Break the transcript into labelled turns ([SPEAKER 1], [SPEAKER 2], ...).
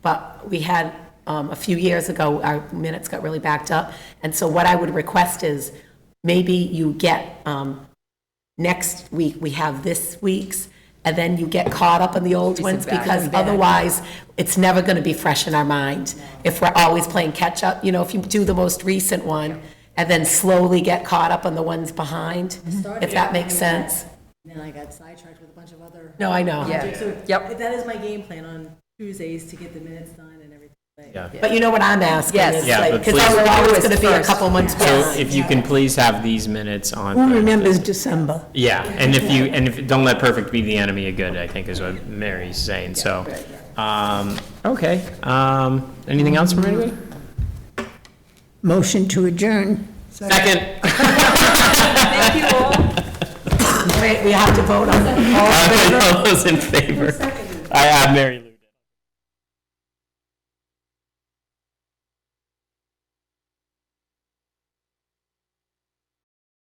[SPEAKER 1] But we had, um, a few years ago, our minutes got really backed up. And so what I would request is, maybe you get, um, next week, we have this week's, and then you get caught up on the old ones,
[SPEAKER 2] back
[SPEAKER 1] because otherwise, it's never gonna be fresh in our mind. If we're always playing catch-up, you know, if you do the most recent one, and then slowly get caught up on the ones behind,
[SPEAKER 2] Mm-hmm.
[SPEAKER 1] if that makes sense.
[SPEAKER 3] And then I got sidetracked with a bunch of other.
[SPEAKER 1] No, I know.
[SPEAKER 2] Yeah.
[SPEAKER 3] So
[SPEAKER 2] Yep.
[SPEAKER 3] That is my game plan on Tuesdays to get the minutes done and everything. but-
[SPEAKER 4] Yeah.
[SPEAKER 1] But you know what I'm asking
[SPEAKER 2] Yes.
[SPEAKER 1] is
[SPEAKER 4] Yeah,
[SPEAKER 1] like,
[SPEAKER 4] but
[SPEAKER 1] because I'm
[SPEAKER 2] please-
[SPEAKER 1] always going to be a
[SPEAKER 2] First.
[SPEAKER 1] couple months
[SPEAKER 4] So
[SPEAKER 1] behind.
[SPEAKER 4] if you can please have these minutes on.
[SPEAKER 5] Who
[SPEAKER 4] the-
[SPEAKER 5] remembers December?
[SPEAKER 4] Yeah, and if you, and if, don't let perfect be the enemy of good, I think is what Mary's saying, so. Um, okay, um, anything else from anybody?
[SPEAKER 5] Motion to adjourn.
[SPEAKER 4] Second.
[SPEAKER 2] Thank you all.
[SPEAKER 1] Wait, we have to vote on that.
[SPEAKER 4] All those in favor? I have Mary.